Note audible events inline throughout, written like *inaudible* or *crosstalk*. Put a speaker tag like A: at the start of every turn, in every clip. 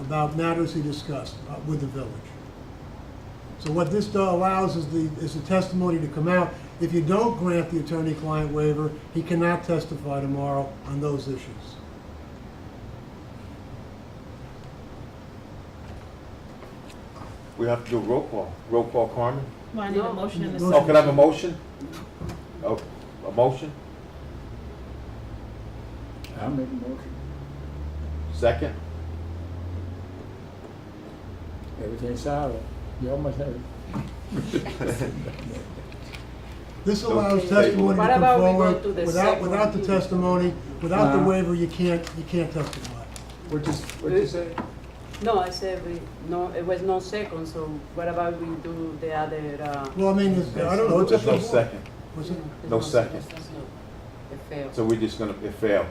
A: about matters he discussed uh, with the village. So what this uh, allows is the, is the testimony to come out. If you don't grant the attorney-client waiver, he cannot testify tomorrow on those issues.
B: We have to do a roll call. Roll call, Carmen?
C: Well, I need a motion in a
A: No.
B: Oh,
C: second.
B: can I have a motion? Oh, a motion?
D: I'll make a motion.
B: Second?
D: Everything's solid. You almost have it.
A: This allows
B: Okay.
A: testimony to
C: What
A: come
C: about we go
A: forward.
C: to the
A: Without,
C: second
A: without the
C: one?
A: testimony, without the
D: Uh-huh.
A: waiver, you can't, you can't testify.
D: What you, what you say?
E: No, I said we, no, it was no second, so what about we do the other, uh?
A: Well, I mean, it's- I don't know. it's up
B: There's
A: to
B: no
A: the board.
B: second.
A: Was it?
E: there's
B: No second.
E: It failed.
B: So we're just gonna, it failed.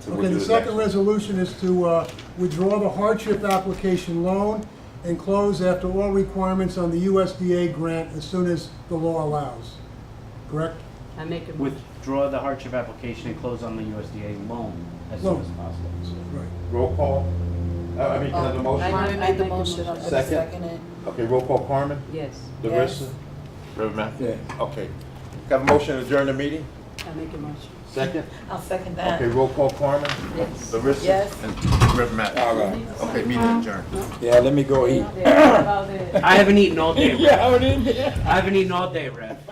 B: So we'll
A: Okay,
B: do
A: the second
B: next.
A: resolution is to uh, withdraw the hardship application loan and close after all requirements on the USDA grant as soon as the law allows. Correct?
E: I make a motion.
F: withdraw the hardship application and close on the USDA loan as
A: Loan.
F: soon as possible.
B: Mm-hmm.
A: Right.
B: Roll call? Uh, I mean, can I have a motion?
E: I-
G: Carmen made the
E: make a motion.
G: motion, I'll
B: Second.
G: second it.
B: Okay, roll call, Carmen?
E: Yes,
G: Yes.
B: DeRissa? Riverman?
D: Yeah.
B: Okay. Got a motion to adjourn the meeting?
E: I make a motion.
B: Second?
G: I'll second that.
B: Okay, roll call, Carmen? Uh,
E: Yes.
B: DeRissa?
G: Yes.
B: And Riverman. All right. Okay, meeting adjourned.
D: Yeah, let me go eat.
E: The- about the-
F: I haven't eaten all day. Rev. *laughs*
D: I would in there.
F: I haven't eaten all day, Rev.